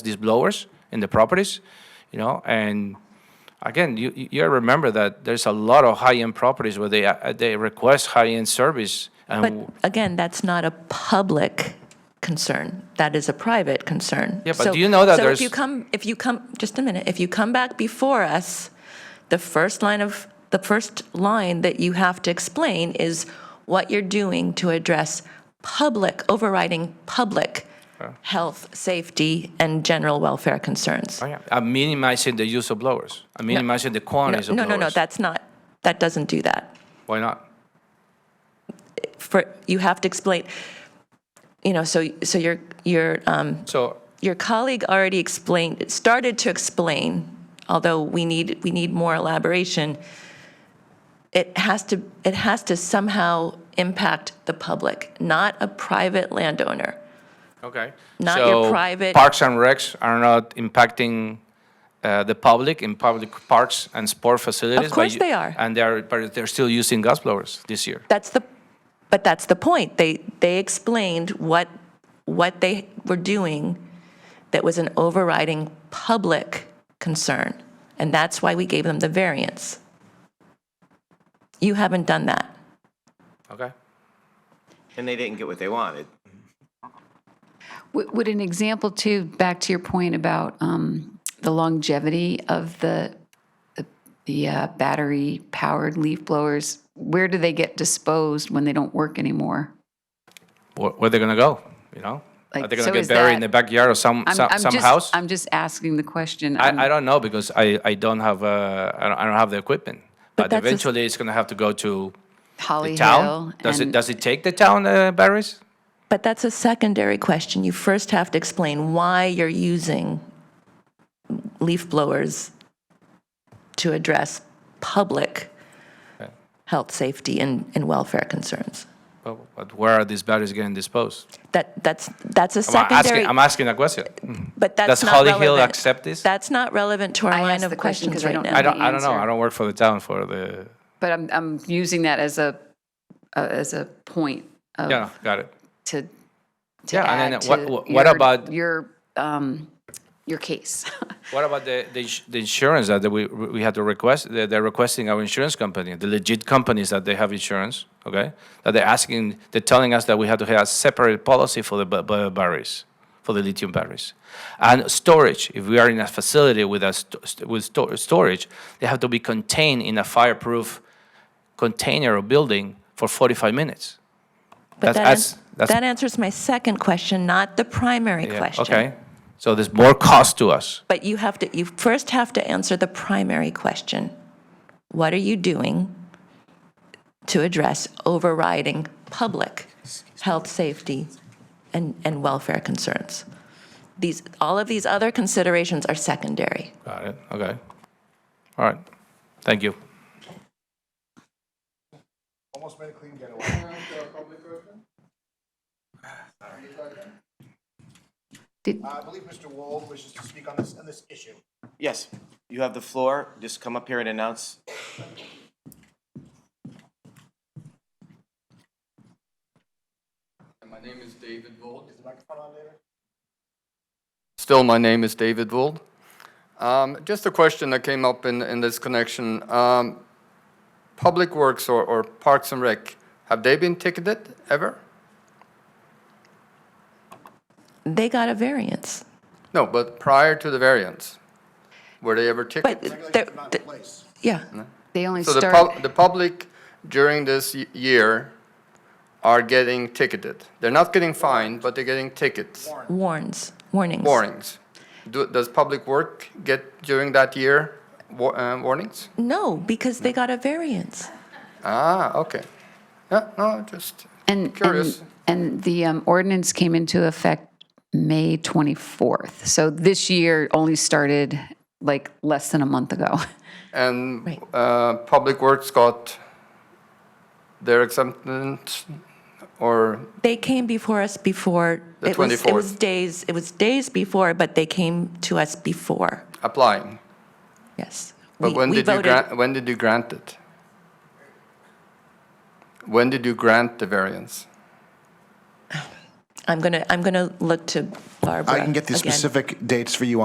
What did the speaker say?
these blowers in the properties, you know, and again, you, you you remember that there's a lot of high-end properties where they, uh, they request high-end service. But and again, that's not a public concern. That is a private concern. Yeah, but So- do you know that So if you there's- come, if you come, just a minute, if you come back before us, the first line of, the first line that you have to explain is what you're doing to address public, overriding public Uh. health, safety, and general welfare concerns. Oh, yeah. I'm minimizing the use of blowers. I'm minimizing the No, quantities of no, blowers. no, no, that's not, that doesn't do that. Why not? For, you have to explain, you know, so, so you're, you're, um, So, your colleague already explained, started to explain, although we need, we need more elaboration, it has to, it has to somehow impact the public, not a private landowner. okay. Not your So private- Parks and recs are not impacting uh, the public in public parks and sport facilities. but course you- they are. And they're, but they're still using gas blowers this year. That's the, but that's the point. They, they explained what, what they were doing that was an overriding public concern, and that's why we gave them the variance. You haven't done that. Okay? And they didn't get what they wanted. Would would an example too, back to your point about um, the longevity of the, the- the uh, battery-powered leaf blowers, where do they get disposed when they don't work anymore? where, where they're gonna go, you know? Are Like, they gonna so get is buried in that- the backyard of some I'm- some, I'm some just- house? I'm just asking the question. I'm- I, I don't know because I, I don't have uh, I, don't, I don't have the equipment. But, that's a s- eventually, it's gonna have to go to Holly the town. Hill. Does it and- does it take the town uh, batteries? But that's a secondary question. You first have to explain why you're using leaf blowers to address public health, safety, and, and welfare concerns. But, but where are these batteries getting disposed? That, that's, that's a I'm asking, secondary, I'm asking a question. but that's does not Holly relevant. Hill accept this? That's not relevant to our I line asked of the question questions 'cause I right don't now. I know. don't the I don't know. answer. I don't work for the town for the. But I'm, I'm using that as a, uh, as a point Yeah, of, got it. to, to Yeah, and then add what- to what- what your- about- Your, um, your case. What about the, the, ins- the insurance that we, we had to request? They're, they're requesting our insurance company, the legit companies that they have insurance, okay? That they're asking, they're telling us that we have to have a separate policy for the ba- ba- batteries, for the lithium batteries. And storage, if we are in a facility with a, st- st- with sto- storage, they have to be contained in a fireproof container or building for 45 minutes. That's- But that, that's- ans- that's- that answers my second question, not the primary Yeah, question. Okay? So there's more cost to us. But you have to, you first have to answer the primary question. What are you doing to address overriding public health, safety, and, and welfare concerns? These, all of these other considerations are secondary. Got it, okay. All right, thank you. Did- I believe Mr. Wall wishes to speak on this, on this issue. Yes, you have the floor. Just come up here and announce. My name is David Vold. Still, my name is David Vold. Um, Just a question that came up in, in this connection. Um, Public Works or, or Parks and Rec, have they been ticketed ever? They got a variance, No, but prior to the variance, were they ever but, ticketed? they're- Regulations are not th- in place. yeah, They only So the start, pub, the public during this y- year are getting ticketed. They're not getting fined, but they're getting tickets. warns, warnings. Warnings. Do- Does Public Work get during that year wa- uh, warnings? No, because they got a variance. Ah, okay. Yeah, no, just and, curious. and, and the um, ordinance came into effect May 24th. So this year only started like less than a month ago. And Right. uh, Public Works got their exemptions or, They came before us before. The it was- It was 24th. days, it was days before, but they came to us before, applying? yes. But We- when we did you voted- grant, when did you grant it? When did you grant the variance? I'm going to, I'm going to look to Barbara I can get the again. specific dates for you